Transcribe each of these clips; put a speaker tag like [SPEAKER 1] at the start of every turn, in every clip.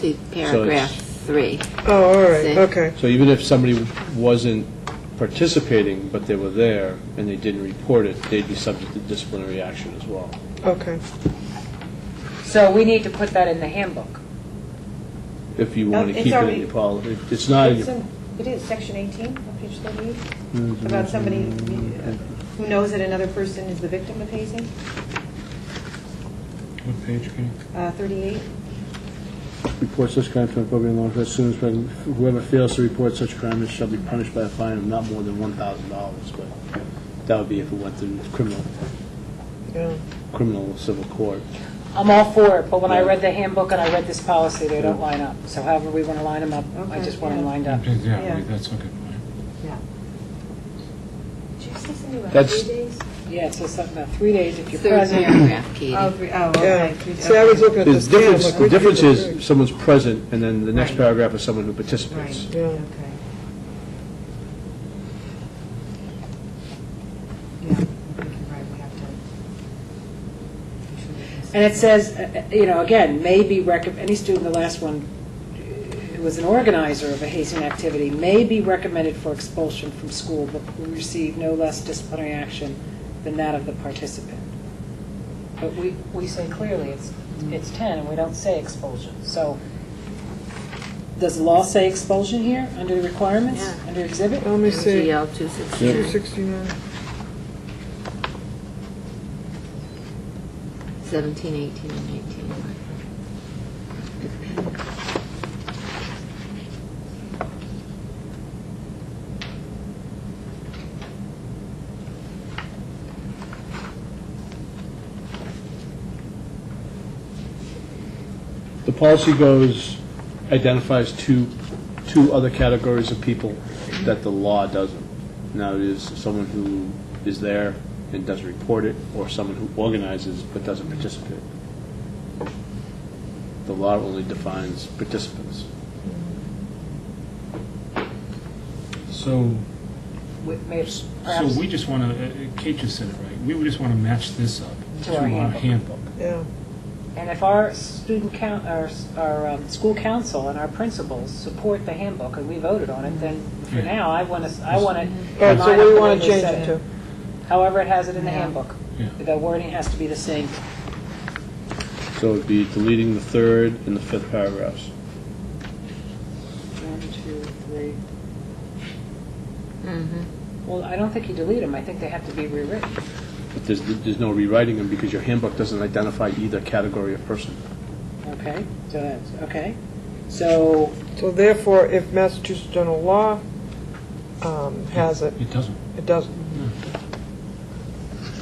[SPEAKER 1] See paragraph three.
[SPEAKER 2] Oh, all right,
[SPEAKER 1] See?
[SPEAKER 2] okay.
[SPEAKER 3] So even if somebody wasn't participating, but they were there, and they didn't report it, they'd be subject to disciplinary action as well.
[SPEAKER 2] Okay.
[SPEAKER 4] So we need to put that in the handbook.
[SPEAKER 3] If you want
[SPEAKER 5] Um,
[SPEAKER 3] to
[SPEAKER 5] it's
[SPEAKER 3] keep it in
[SPEAKER 5] already-
[SPEAKER 3] your policy. It's not, in
[SPEAKER 5] It's
[SPEAKER 3] your-
[SPEAKER 5] in- It is, section 18 on page
[SPEAKER 3] Mm-hmm.
[SPEAKER 5] 38, about somebody uh, who knows that another person is the victim of hazing,
[SPEAKER 6] What page, Kenny?
[SPEAKER 5] uh, 38.
[SPEAKER 7] reports such crime to an appropriate law enforcement as soon as whoever fails to report such crime shall be punished by a fine of not more than one thousand dollars, but that would be if it went through criminal,
[SPEAKER 2] Yeah.
[SPEAKER 7] criminal civil court.
[SPEAKER 4] I'm all for it, but when I read the handbook and I read this policy, they don't line up. So however we want to line them up, I
[SPEAKER 5] Okay,
[SPEAKER 4] just want
[SPEAKER 5] yeah.
[SPEAKER 4] them lined up.
[SPEAKER 5] Yeah.
[SPEAKER 6] Yeah, wait, that's a good point.
[SPEAKER 3] that's,
[SPEAKER 4] Yeah, it says something about three days if you're
[SPEAKER 1] Third
[SPEAKER 4] present.
[SPEAKER 1] paragraph, Katie.
[SPEAKER 5] Oh, three, oh, okay.
[SPEAKER 2] Yeah.
[SPEAKER 5] three-
[SPEAKER 2] See, I was looking at
[SPEAKER 3] the
[SPEAKER 2] this.
[SPEAKER 3] difference, the difference is someone's present, and then the next paragraph is someone who participates.
[SPEAKER 5] Right,
[SPEAKER 2] Yeah.
[SPEAKER 5] okay. Yeah, I think you're right, we have to. we should do this.
[SPEAKER 4] And it says, uh, uh, you know, again, may be recom, any student, the last one, uh, who was an organizer of a hazing activity, may be recommended for expulsion from school, but will receive no less disciplinary action than that of the participant. But we, we say clearly it's, it's 10, and we don't say expulsion. So does the law say expulsion here, under the requirements,
[SPEAKER 1] Yeah.
[SPEAKER 4] under exhibit?
[SPEAKER 2] Let me see,
[SPEAKER 1] MGL 269.
[SPEAKER 2] 269,
[SPEAKER 1] 17, 18, and 19.
[SPEAKER 3] The policy goes, identifies two, two other categories of people that the law doesn't. Now, it is someone who is there and doesn't report it, or someone who organizes but doesn't participate. The law only defines participants.
[SPEAKER 6] So,
[SPEAKER 4] We- may-
[SPEAKER 6] so
[SPEAKER 4] perhaps-
[SPEAKER 6] we just want to, Kate just said it right, we would just want to match this up
[SPEAKER 4] To
[SPEAKER 6] to
[SPEAKER 4] our
[SPEAKER 6] our
[SPEAKER 4] handbook.
[SPEAKER 6] handbook.
[SPEAKER 2] yeah.
[SPEAKER 4] And if our student coun, our, s- our um, school council and our principals support the handbook, and we voted on it, then for
[SPEAKER 6] Yeah.
[SPEAKER 4] now, I want to, I want to.
[SPEAKER 2] All right, so what do you want to change it to?
[SPEAKER 4] However it has it in the
[SPEAKER 5] Yeah.
[SPEAKER 4] handbook.
[SPEAKER 6] Yeah.
[SPEAKER 4] The wording has to be the same.
[SPEAKER 3] So it'd be deleting the third and the fifth paragraphs.
[SPEAKER 4] One, two, three.
[SPEAKER 2] Mm-hmm.
[SPEAKER 4] Well, I don't think you delete them, I think they have to be rewritten.
[SPEAKER 3] But there's, there's no rewriting them because your handbook doesn't identify either category of person.
[SPEAKER 4] Okay, so that's, okay. So,
[SPEAKER 2] So therefore, if Massachusetts general law um, has it,
[SPEAKER 6] It doesn't.
[SPEAKER 2] it doesn't.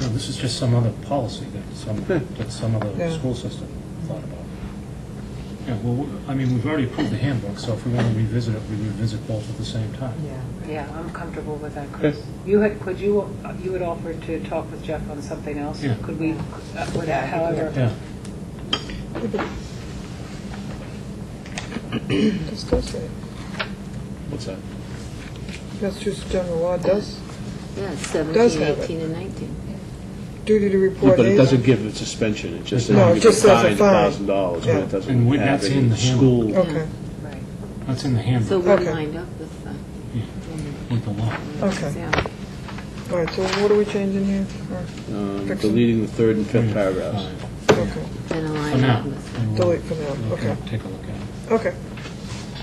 [SPEAKER 6] No, this is just some other policy that some, that some other
[SPEAKER 2] Yeah.
[SPEAKER 6] school system thought about. Yeah, well, w- I mean, we've already approved the handbook, so if we want to revisit it, we revisit both at the same time.
[SPEAKER 5] Yeah.
[SPEAKER 4] yeah, I'm comfortable with that, Chris. You had, could you, uh, you had offered to talk with Jeff on something else?
[SPEAKER 6] Yeah.
[SPEAKER 4] Could we, uh, would-
[SPEAKER 5] Yeah, I think we
[SPEAKER 4] however.
[SPEAKER 6] Yeah,
[SPEAKER 2] This does say,
[SPEAKER 3] What's that?
[SPEAKER 2] Massachusetts general law does
[SPEAKER 1] Yeah,
[SPEAKER 2] Does
[SPEAKER 1] 17,
[SPEAKER 2] have it.
[SPEAKER 1] 18, and 19.
[SPEAKER 2] duty to
[SPEAKER 3] Yeah,
[SPEAKER 2] report.
[SPEAKER 3] But it
[SPEAKER 2] hazing.
[SPEAKER 3] doesn't give a suspension, it just says
[SPEAKER 2] No,
[SPEAKER 3] you
[SPEAKER 2] it
[SPEAKER 3] get
[SPEAKER 2] just says a
[SPEAKER 3] fined a thousand dollars, but
[SPEAKER 2] Yeah.
[SPEAKER 3] it doesn't
[SPEAKER 6] And we-
[SPEAKER 3] have
[SPEAKER 6] that's in
[SPEAKER 3] any
[SPEAKER 6] the handbook.
[SPEAKER 3] school.
[SPEAKER 2] Okay,
[SPEAKER 4] Right.
[SPEAKER 6] that's in the
[SPEAKER 1] So
[SPEAKER 6] handbook
[SPEAKER 1] we're
[SPEAKER 2] Okay.
[SPEAKER 1] lined up with the,
[SPEAKER 6] with the law.
[SPEAKER 2] okay.
[SPEAKER 1] yeah.
[SPEAKER 2] All right, so what are we changing here? Or-
[SPEAKER 3] Um,
[SPEAKER 2] Fixing.
[SPEAKER 3] Deleting the third and fifth
[SPEAKER 6] Yeah,
[SPEAKER 3] paragraphs.
[SPEAKER 6] fine.
[SPEAKER 2] Okay,
[SPEAKER 1] Then
[SPEAKER 6] For
[SPEAKER 1] align
[SPEAKER 6] now.
[SPEAKER 1] up with
[SPEAKER 6] And we'll-
[SPEAKER 2] delete for now,
[SPEAKER 6] we'll
[SPEAKER 2] okay,
[SPEAKER 6] Take a look at it.
[SPEAKER 2] okay,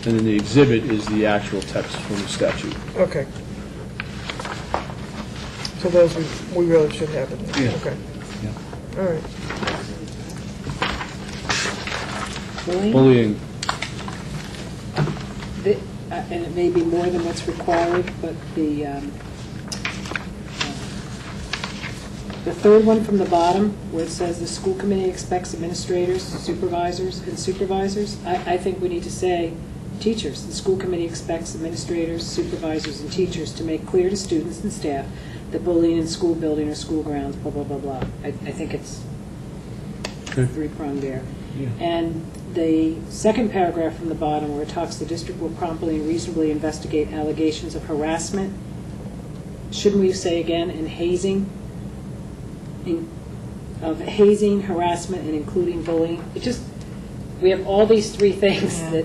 [SPEAKER 3] And then the exhibit is the actual text from the statute.
[SPEAKER 2] okay. So those, we we really should have it,
[SPEAKER 6] Yeah.
[SPEAKER 2] okay. All right,
[SPEAKER 4] Bullying,
[SPEAKER 3] Bullying,
[SPEAKER 4] the- uh, and it may be more than what's required, but the, um, the third one from the bottom, where it says the school committee expects administrators, supervisors, and supervisors, I, I think we need to say teachers. The school committee expects administrators, supervisors, and teachers to make clear to students and staff that bullying in school building or school grounds, blah, blah, blah, blah. I, I think it's three-pronged there. And the second paragraph from the bottom where it talks, the district will promptly and reasonably investigate allegations of harassment, shouldn't we say again, and hazing, in- of hazing, harassment, and including bullying? It just,
[SPEAKER 8] we have all these three things
[SPEAKER 4] Yeah.
[SPEAKER 8] that